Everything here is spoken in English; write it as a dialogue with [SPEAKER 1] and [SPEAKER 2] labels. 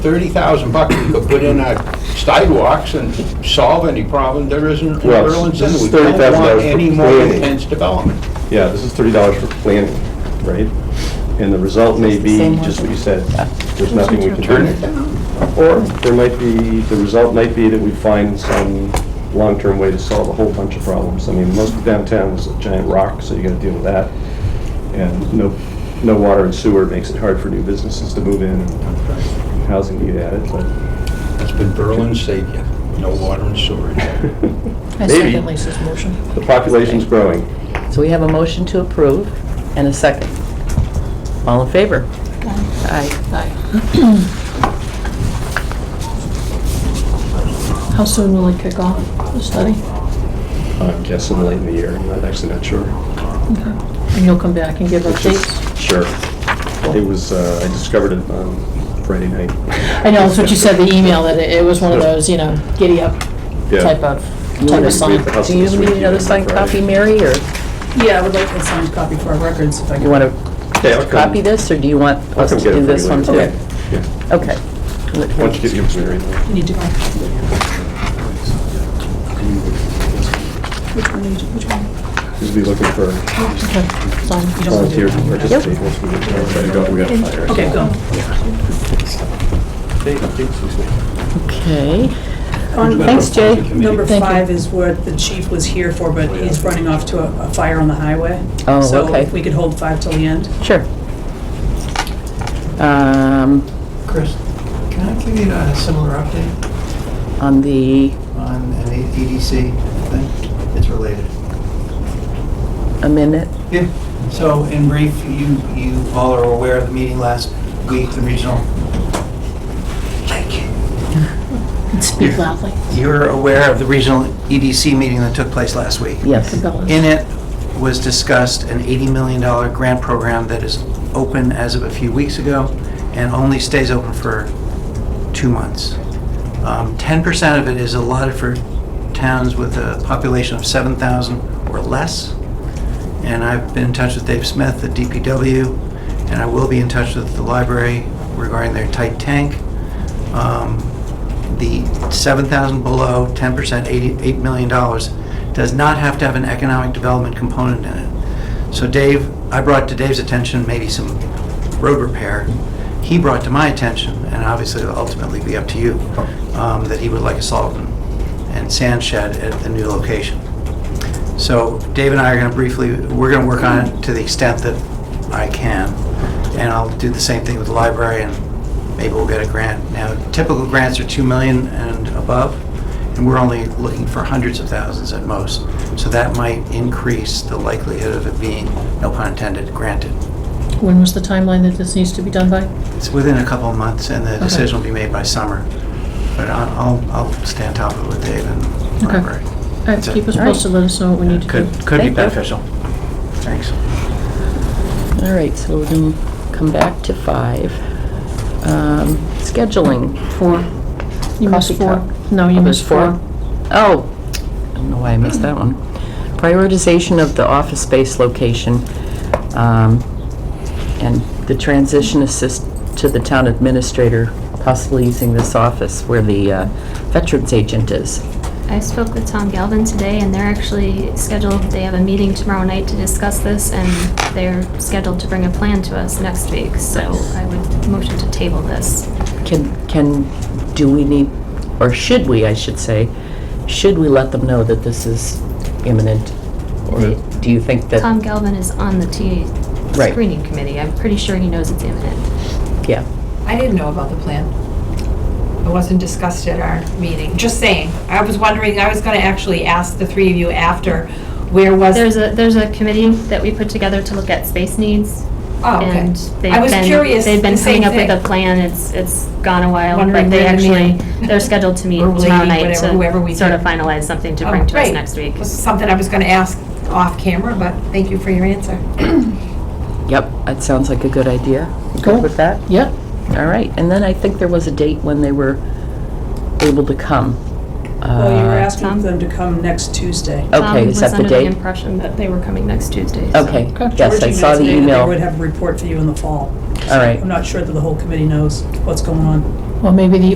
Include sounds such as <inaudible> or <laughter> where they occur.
[SPEAKER 1] 30,000 bucks we could put in our sidewalks and solve any problem there isn't in
[SPEAKER 2] Well,
[SPEAKER 1] Burlington.
[SPEAKER 2] this is
[SPEAKER 1] We don't
[SPEAKER 2] $30,000
[SPEAKER 1] want
[SPEAKER 2] for
[SPEAKER 1] any more
[SPEAKER 2] planning.
[SPEAKER 1] intense development.
[SPEAKER 2] Yeah, this is thirty dollars for planning, right? And the result may be
[SPEAKER 3] Same one.
[SPEAKER 2] just what you said, there's nothing we can
[SPEAKER 1] Turn
[SPEAKER 2] do.
[SPEAKER 1] it down.
[SPEAKER 2] Or there might be, the result might be that we find some long-term way to solve a whole bunch of problems. I mean, most of downtown is a giant rock, so you gotta deal with that. And no, no water and sewer makes it hard for new businesses to move in, and housing to get added, but
[SPEAKER 1] That's been Berlin's savior, no water and sewer.
[SPEAKER 4] I
[SPEAKER 2] Maybe.
[SPEAKER 4] second Lisa's motion.
[SPEAKER 2] <laughs> the population's growing.
[SPEAKER 3] So we have a motion to approve and a second. All in favor? Aye.
[SPEAKER 4] How soon will it kick off the study?
[SPEAKER 2] I'm guessing late in the year, I'm not actually not sure.
[SPEAKER 4] And you'll come back and give
[SPEAKER 2] It's just-
[SPEAKER 4] updates?
[SPEAKER 2] Sure. It was, uh, I discovered it on Friday night.
[SPEAKER 4] I know, that's what you said, the email, that it it was one of those, you know, giddy up
[SPEAKER 2] Yeah.
[SPEAKER 4] type of, type of sign.
[SPEAKER 2] House
[SPEAKER 3] Do you
[SPEAKER 2] this
[SPEAKER 3] need
[SPEAKER 2] week,
[SPEAKER 3] another
[SPEAKER 2] even
[SPEAKER 3] signed
[SPEAKER 2] Friday.
[SPEAKER 3] copy, Mary, or
[SPEAKER 5] Yeah, I would like a signed copy for our records if I
[SPEAKER 3] you
[SPEAKER 5] could.
[SPEAKER 3] want to
[SPEAKER 2] Okay, I'll come-
[SPEAKER 3] copy this, or do you want
[SPEAKER 2] I'll
[SPEAKER 3] us
[SPEAKER 2] come
[SPEAKER 3] to
[SPEAKER 2] get it
[SPEAKER 3] do
[SPEAKER 2] for
[SPEAKER 3] this
[SPEAKER 2] you
[SPEAKER 3] one too?
[SPEAKER 2] later. Yeah.
[SPEAKER 3] Okay.
[SPEAKER 2] Why don't you give yours to Mary? then?
[SPEAKER 5] You need to go. Which one, did you- which one?
[SPEAKER 2] Just be looking for
[SPEAKER 5] You don't want to do
[SPEAKER 2] volunteers
[SPEAKER 5] it
[SPEAKER 2] to
[SPEAKER 5] now.
[SPEAKER 2] participate. once we get there. Try to go. We gotta fire.
[SPEAKER 5] Okay, go.
[SPEAKER 3] Okay.
[SPEAKER 5] On
[SPEAKER 3] Thanks, Jay.
[SPEAKER 5] Number
[SPEAKER 3] Thank you.
[SPEAKER 5] five is what the chief was here for, but he's running off to a a fire on the highway.
[SPEAKER 3] Oh,
[SPEAKER 5] So
[SPEAKER 3] okay.
[SPEAKER 5] if we could hold five till the end.
[SPEAKER 3] Sure. Um,
[SPEAKER 6] Chris, can I give you a similar update
[SPEAKER 3] On the
[SPEAKER 6] on an E- EDC thing? It's related.
[SPEAKER 3] a minute,
[SPEAKER 6] Yeah. So in brief, you, you all are aware of the meeting last week, the regional. Thank you.
[SPEAKER 4] Speak loudly.
[SPEAKER 6] You're aware of the regional EDC meeting that took place last week?
[SPEAKER 3] yes.
[SPEAKER 6] In it was discussed an $80 million grant program that is open as of a few weeks ago and only stays open for two months. Um, 10% of it is allotted for towns with a population of 7,000 or less. And I've been in touch with Dave Smith at DPW, and I will be in touch with the library regarding their tight tank. Um, the 7,000 below, 10%, $80 $8 million, does not have to have an economic development component in it. So Dave, I brought to Dave's attention maybe some road repair. He brought to my attention, and obviously it'll ultimately be up to you, um, that he would like a solvent and sand shed at the new location. So Dave and I are going to briefly, we're going to work on it to the extent that I can. And I'll do the same thing with the library and maybe we'll get a grant. Now, typical grants are 2 million and above, and we're only looking for hundreds of thousands at most. So that might increase the likelihood of it being, no pun intended, granted.
[SPEAKER 4] When was the timeline that this needs to be done by?
[SPEAKER 6] It's within a couple of months and the decision will be made by summer. But I- I'll, I'll stay on top of it with Dave and
[SPEAKER 4] Okay.
[SPEAKER 6] library.
[SPEAKER 4] All right, keep us
[SPEAKER 3] All right.
[SPEAKER 4] posted, let us know what we need to do.
[SPEAKER 6] Could,
[SPEAKER 3] Thank
[SPEAKER 6] could be
[SPEAKER 3] you.
[SPEAKER 6] beneficial. Thanks.
[SPEAKER 3] All right, so we're going to come back to five. Um, Scheduling. Four.
[SPEAKER 4] You missed
[SPEAKER 3] Coffee
[SPEAKER 4] four.
[SPEAKER 3] cup.
[SPEAKER 4] No, you
[SPEAKER 3] Oh,
[SPEAKER 4] missed
[SPEAKER 3] there's
[SPEAKER 4] four.
[SPEAKER 3] Oh, I don't know why I missed that one. Prioritization of the office space location um, and the transition assist to the town administrator, possibly using this office where the uh, veterans agent is.
[SPEAKER 7] I spoke with Tom Galvin today, and they're actually scheduled, they have a meeting tomorrow night to discuss this, and they're scheduled to bring a plan to us next week, so I would motion to table this.
[SPEAKER 3] Can, can, do we need, or should we, I should say, should we let them know that this is imminent? Or do you think that?
[SPEAKER 7] Tom Galvin is on the TA
[SPEAKER 3] Right.
[SPEAKER 7] screening committee. I'm pretty sure he knows it's imminent.
[SPEAKER 3] Yeah.
[SPEAKER 8] I didn't know about the plan. It wasn't discussed at our meeting, just saying. I was wondering, I was gonna actually ask the three of you after, where was?
[SPEAKER 7] There's a, there's a committee that we put together to look at space needs.
[SPEAKER 8] Oh, okay.
[SPEAKER 7] And
[SPEAKER 8] I
[SPEAKER 7] they've
[SPEAKER 8] was
[SPEAKER 7] been,
[SPEAKER 8] curious,
[SPEAKER 7] they've been
[SPEAKER 8] the same
[SPEAKER 7] coming up with
[SPEAKER 8] thing.
[SPEAKER 7] a plan. It's, it's gone a while,
[SPEAKER 8] Wondering
[SPEAKER 7] but they
[SPEAKER 8] where the
[SPEAKER 7] actually,
[SPEAKER 8] man-
[SPEAKER 7] they're scheduled to meet
[SPEAKER 8] <laughs> or lady,
[SPEAKER 7] tomorrow night
[SPEAKER 8] whatever, whoever we
[SPEAKER 7] to sort of
[SPEAKER 8] can-
[SPEAKER 7] finalize something to
[SPEAKER 8] Oh,
[SPEAKER 7] bring to us
[SPEAKER 8] great.
[SPEAKER 7] next week.
[SPEAKER 8] This is something I was gonna ask off camera, but thank you for your answer.
[SPEAKER 3] Yep, that sounds like a good idea. You Good with that?
[SPEAKER 4] Yep,
[SPEAKER 3] All right, and then I think there was a date when they were able to come.
[SPEAKER 5] Well, you were
[SPEAKER 3] Uh, Oh,
[SPEAKER 5] asking them to come next Tuesday.
[SPEAKER 3] Okay, is that the
[SPEAKER 7] Tom was under the
[SPEAKER 3] date?
[SPEAKER 7] Um, impression that they were coming next Tuesday. so-
[SPEAKER 3] Okay, yes, I
[SPEAKER 5] Georgie
[SPEAKER 3] saw
[SPEAKER 5] knows
[SPEAKER 3] the
[SPEAKER 5] maybe They
[SPEAKER 3] email.
[SPEAKER 5] would have a report for you in the fall.
[SPEAKER 3] All right,
[SPEAKER 5] I'm not sure that the whole committee knows what's going on.
[SPEAKER 4] Well, maybe the